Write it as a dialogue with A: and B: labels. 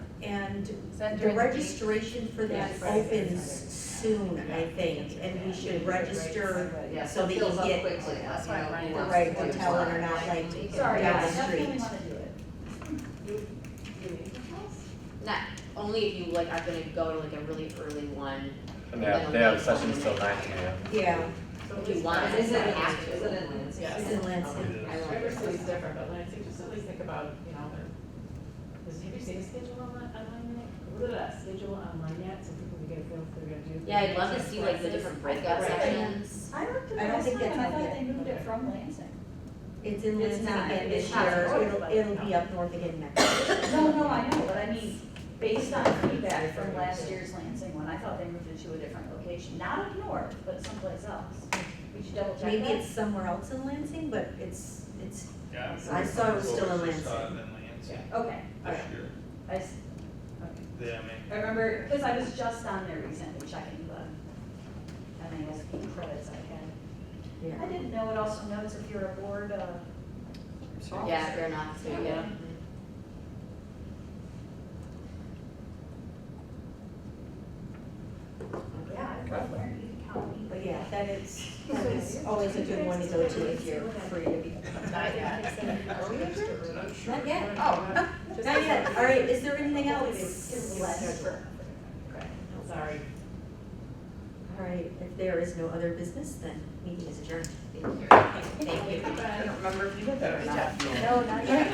A: and
B: that
A: the
B: during the week?
A: registration for that
B: Yes.
A: opens soon, I think, and we should register
B: Yeah.
A: so that you
C: Fills up
A: get
C: quickly.
B: That's why I'm running
C: You know,
A: the
B: out.
A: right hotel and are not like
B: Sorry,
A: down
B: yeah,
A: the
B: that's
A: street.
C: Not, only if you like are gonna go to like a really early one,
D: And they have, they have sessions till nine AM.
A: Yeah,
C: if you want, if you
E: Isn't it-
C: have to.
E: isn't it-
A: it's
E: Yes.
A: in Lansing.
C: I don't know.
E: Every city's different, but Lansing, just at least think about, you know, their, is, have you seen a schedule online, online yet? What is that schedule online yet, so people can get a feel for they're gonna do?
C: Yeah, I'd love to see like the different breakout
E: Right.
C: sessions.
F: I looked at
A: I
F: it
A: don't
F: last
A: think
F: night,
A: that's
F: and I
A: out
F: thought
A: yet.
F: they moved it from Lansing.
A: It's in
C: It's
A: Lansing
C: not-
A: again
C: it's
A: this
C: not
A: year, it'll,
F: affordable.
A: it'll be up north again next year.
F: No, no, I know, but I mean, based on feedback from last year's Lansing one, I thought they moved it to a different location, not up north, but someplace else. Would you double check that?
A: Maybe it's somewhere else in Lansing, but it's, it's,
G: Yeah. I'm
A: I
G: pretty
A: saw it was
G: sure
A: still in
G: Clovis saw
A: Lansing.
G: it in Lansing
F: Okay, all right,
G: this year.
F: I, s- okay.
G: Yeah, I mean,
F: I remember, because I was just on there recently checking the MASP credits uh, I had. I
A: yeah.
F: didn't know it also notes if you're a board, uh,
C: Yeah, if you're not, so yeah.
F: yeah, I love Laramie County.
A: But yeah, that is, that is always a good one to go to if you're free to be.
E: Not yet.
A: Not yet, oh, not yet, all right, is there anything else?
F: It's less.
E: Sorry.
A: All right, if there is no other business, then meeting is adjourned.
C: Thank you.
E: Bye.
D: I don't remember if you did that or not.
F: No, not yet.